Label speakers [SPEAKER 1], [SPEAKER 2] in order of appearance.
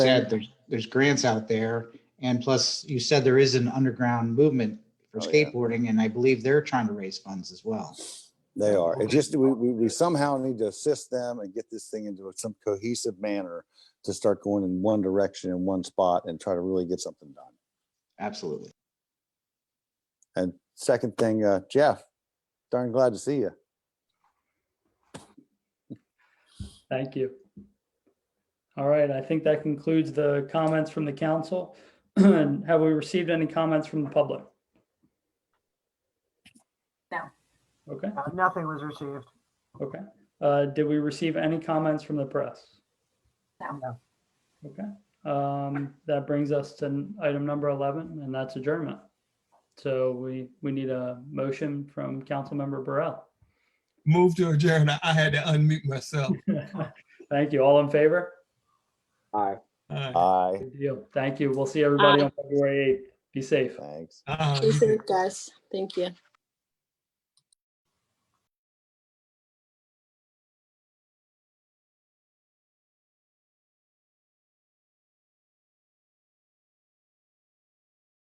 [SPEAKER 1] said, there's, there's grants out there. And plus, you said there is an underground movement for
[SPEAKER 2] Oh, yeah.
[SPEAKER 1] skateboarding, and I believe they're trying to raise funds as well.
[SPEAKER 2] They are. It
[SPEAKER 1] Okay.
[SPEAKER 2] just, we, we, we somehow need to assist them and get this thing into some cohesive manner to start going in one direction in one spot and try to really get something done.
[SPEAKER 1] Absolutely.
[SPEAKER 2] And second thing, uh, Jeff, darn glad to see you.
[SPEAKER 3] Thank you. All right, I think that concludes the comments from the council. Have we received any comments from the public?
[SPEAKER 4] No.
[SPEAKER 3] Okay,
[SPEAKER 5] Uh, Nothing was received.
[SPEAKER 3] okay. Uh, Did we receive any comments from the press?
[SPEAKER 4] No.
[SPEAKER 5] No.
[SPEAKER 3] Okay, um, that brings us to item number 11, and that's adjournment. So we, we need a motion from Councilmember Burrell.
[SPEAKER 6] Move to adjourn. I I had to unmute myself.
[SPEAKER 3] Thank you. All in favor?
[SPEAKER 6] Uh,
[SPEAKER 2] Aye,
[SPEAKER 3] Good deal. Thank you. We'll see everybody on February 8th. Be safe.
[SPEAKER 2] thanks.
[SPEAKER 6] uh,
[SPEAKER 7] Be safe, guys. Thank you.